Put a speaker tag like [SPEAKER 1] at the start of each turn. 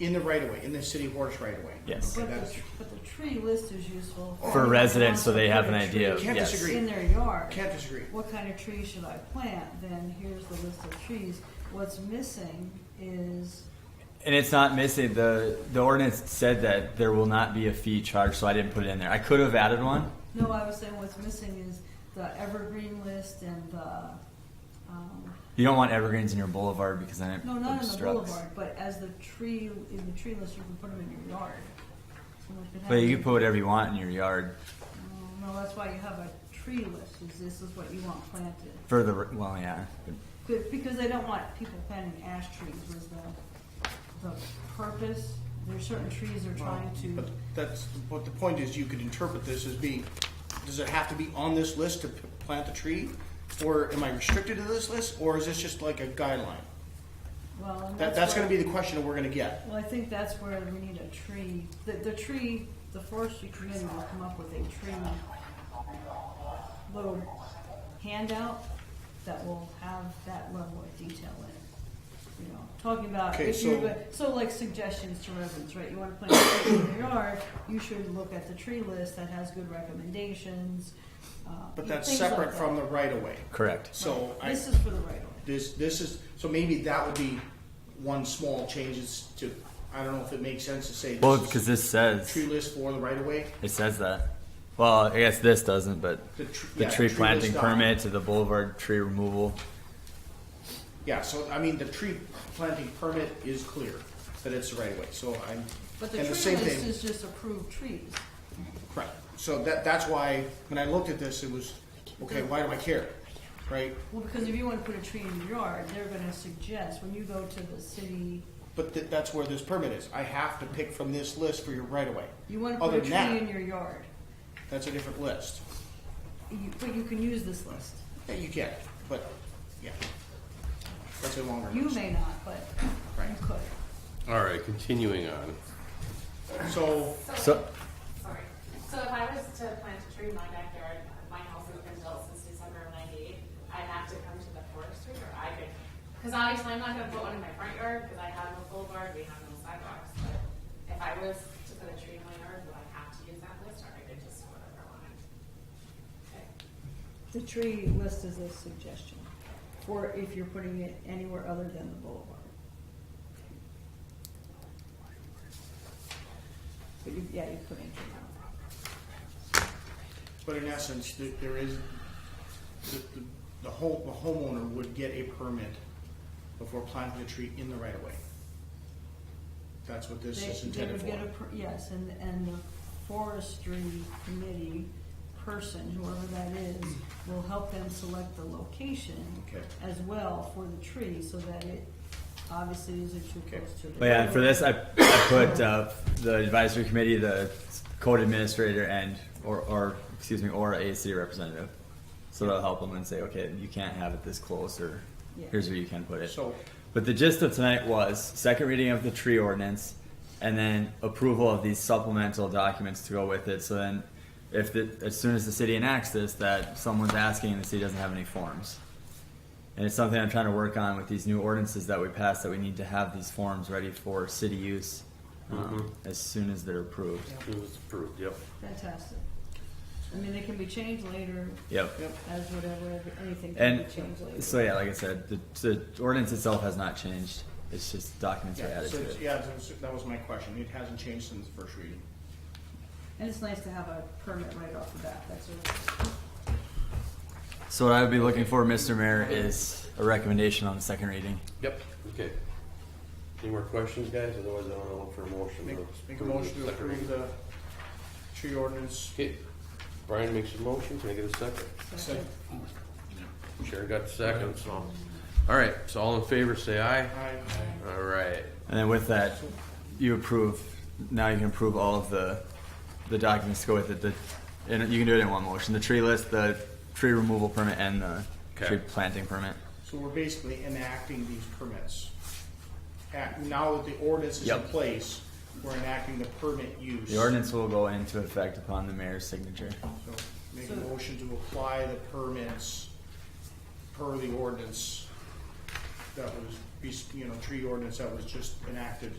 [SPEAKER 1] in the right of way, in the city of Horace right of way.
[SPEAKER 2] Yes.
[SPEAKER 1] Okay,
[SPEAKER 3] But the,
[SPEAKER 1] that's-
[SPEAKER 3] but the tree list is useful.
[SPEAKER 2] for
[SPEAKER 3] Everybody
[SPEAKER 2] residents,
[SPEAKER 3] wants
[SPEAKER 2] so
[SPEAKER 3] to
[SPEAKER 2] they
[SPEAKER 3] put
[SPEAKER 2] have
[SPEAKER 3] a
[SPEAKER 2] an
[SPEAKER 3] tree
[SPEAKER 2] idea. of
[SPEAKER 1] Can't
[SPEAKER 2] yes.
[SPEAKER 1] disagree.
[SPEAKER 3] In their yard.
[SPEAKER 1] Can't disagree.
[SPEAKER 3] What kind of tree should I plant? Then here's the list of trees. What's missing is,
[SPEAKER 2] And it's not missing the the ordinance said that there will not be a fee charged, so I didn't put it in there. I could have added one.
[SPEAKER 3] no, I was saying what's missing is the evergreen list and the, um,
[SPEAKER 2] You don't want evergreens in your boulevard because then it
[SPEAKER 3] no, not in the
[SPEAKER 2] obstructs.
[SPEAKER 3] boulevard, but as the tree, in the tree list, you can put them in your yard. Someone could have
[SPEAKER 2] But you
[SPEAKER 3] them-
[SPEAKER 2] can put whatever you want in your yard
[SPEAKER 3] Mm, No, that's why you have a tree list, is this is what you want planted.
[SPEAKER 2] for the well, yeah.
[SPEAKER 3] Good, because they don't want people planting ash trees was the, the purpose. There's certain trees they're trying to,
[SPEAKER 1] But that's, but the point is, you could interpret this as being, does it have to be on this list to p- plant the tree? Or am I restricted to this list, or is this just like a guideline?
[SPEAKER 3] well. and
[SPEAKER 1] That, that's
[SPEAKER 3] where-
[SPEAKER 1] gonna be the question that we're gonna get.
[SPEAKER 3] Well, I think that's where we need a tree. The, the tree, the forestry committee will come up with a tree little handout that will have that level of detail in it. You know, talking about,
[SPEAKER 1] Okay,
[SPEAKER 3] if you're,
[SPEAKER 1] so-
[SPEAKER 3] go- so like suggestions to residents, right? You wanna plant a tree in your yard, you should look at the tree list that has good recommendations, uh.
[SPEAKER 1] But
[SPEAKER 3] you-
[SPEAKER 1] that's
[SPEAKER 3] things like
[SPEAKER 1] separate
[SPEAKER 3] that.
[SPEAKER 1] from the right of way.
[SPEAKER 2] Correct.
[SPEAKER 1] So I,
[SPEAKER 3] This is for the right of way.
[SPEAKER 1] this, this is, so maybe that would be one small change is to, I don't know if it makes sense to say.
[SPEAKER 2] Well,
[SPEAKER 1] this is
[SPEAKER 2] because this says
[SPEAKER 1] Tree list for the right of way.
[SPEAKER 2] it says that. Well, I guess this doesn't, but
[SPEAKER 1] The tr-
[SPEAKER 2] the
[SPEAKER 1] yeah,
[SPEAKER 2] tree
[SPEAKER 1] tree
[SPEAKER 2] planting
[SPEAKER 1] list
[SPEAKER 2] permit to the boulevard tree removal.
[SPEAKER 1] Yeah, so I mean, the tree planting permit is clear that it's the right of way, so I'm,
[SPEAKER 3] But the
[SPEAKER 1] and
[SPEAKER 3] tree
[SPEAKER 1] the same
[SPEAKER 3] list
[SPEAKER 1] thing,
[SPEAKER 3] is just approved trees.
[SPEAKER 1] correct. So that, that's why, when I looked at this, it was, okay, why do I care, right?
[SPEAKER 3] Well, because if you want to put a tree in your yard, they're gonna suggest, when you go to the city,
[SPEAKER 1] But tha- that's where this permit is, I have to pick from this list for your right of way.
[SPEAKER 3] you wanna put
[SPEAKER 1] Other
[SPEAKER 3] a
[SPEAKER 1] than
[SPEAKER 3] tree
[SPEAKER 1] that,
[SPEAKER 3] in your yard.
[SPEAKER 1] That's a different list,
[SPEAKER 3] You, but you can use this list.
[SPEAKER 1] Yeah, you can, but, yeah. That's a longer
[SPEAKER 3] You
[SPEAKER 1] list.
[SPEAKER 3] may not, but
[SPEAKER 1] Right.
[SPEAKER 3] you could.
[SPEAKER 4] All right, continuing on.
[SPEAKER 1] So,
[SPEAKER 2] So-
[SPEAKER 5] Sorry. So if I was to plant a tree in my backyard, my house has been built since December of ninety-eight, I'd have to come to the forestry or I could, because obviously I'm not gonna put one in my front yard because I have no boulevard, we have no sidewalks. But if I was to put a tree in my yard, would I have to use that list or I could just do whatever I wanted? Okay.
[SPEAKER 3] The tree list is a suggestion for if you're putting it anywhere other than the boulevard. But you, yeah, you put it in your
[SPEAKER 1] but in essence, th- there is, the, the- the home, the homeowner would get a permit before planting a tree in the right of way. That's what this
[SPEAKER 3] yard.
[SPEAKER 1] is
[SPEAKER 3] They- they
[SPEAKER 1] intended
[SPEAKER 3] would
[SPEAKER 1] for.
[SPEAKER 3] get a per- Yes, and, and the forestry committee person, whoever that is, will help them select the location
[SPEAKER 1] Okay.
[SPEAKER 3] as well for the tree, so that it obviously isn't too
[SPEAKER 1] Okay.
[SPEAKER 3] close to the.
[SPEAKER 2] But yeah, and for this, I, I put uh, the advisory committee, the code administrator, and or, or excuse me, or a city representative. So they'll help them and say, okay, you can't have it this close, or
[SPEAKER 3] Yeah.
[SPEAKER 2] here's where you can put it.
[SPEAKER 1] So-
[SPEAKER 2] but the gist of tonight was second reading of the tree ordinance, and then approval of these supplemental documents to go with it. So then, if the, as soon as the city enacts this, that someone's asking, and the city doesn't have any forms. And it's something I'm trying to work on with these new ordinances that we pass, that we need to have these forms ready for city use um, as soon as they're approved.
[SPEAKER 4] It was approved, yep.
[SPEAKER 3] Fantastic. I mean, they can be changed later
[SPEAKER 2] Yep.
[SPEAKER 1] Yep.
[SPEAKER 3] as whatever, anything can
[SPEAKER 2] And
[SPEAKER 3] be changed later.
[SPEAKER 2] so, yeah, like I said, the, the ordinance itself has not changed. It's just documents are
[SPEAKER 1] Yeah,
[SPEAKER 2] added
[SPEAKER 1] so,
[SPEAKER 2] to
[SPEAKER 1] it's-
[SPEAKER 2] it.
[SPEAKER 1] yeah, that was- that was my question. It hasn't changed since the first reading.
[SPEAKER 3] And it's nice to have a permit right off the bat, that's a,
[SPEAKER 2] So what I would be looking for, Mr. Mayor, is a recommendation on the second reading.
[SPEAKER 4] Yep. Okay. Any more questions, guys? Otherwise, I don't know for a motion.
[SPEAKER 1] Make,
[SPEAKER 4] to
[SPEAKER 1] make a
[SPEAKER 4] approve
[SPEAKER 1] motion to
[SPEAKER 4] the second
[SPEAKER 1] approve
[SPEAKER 4] reading.
[SPEAKER 1] the tree ordinance.
[SPEAKER 4] Okay, Brian makes a motion. Can I get a second?
[SPEAKER 1] Second.
[SPEAKER 4] Sharon got the second, so. All right, so all in favor, say aye.
[SPEAKER 1] Aye.
[SPEAKER 4] All right.
[SPEAKER 2] And then with that, you approve, now you can approve all of the, the documents to go with it. The, and you can do it in one motion, the tree list, the tree removal permit, and the
[SPEAKER 4] Okay.
[SPEAKER 2] tree planting permit.
[SPEAKER 1] So we're basically enacting these permits. At, now that the ordinance is in
[SPEAKER 2] Yep.
[SPEAKER 1] place, we're enacting the permit use.
[SPEAKER 2] The ordinance will go into effect upon the mayor's signature.
[SPEAKER 1] So Make a motion to apply the permits per the ordinance that was, you know, tree ordinance that was just enacted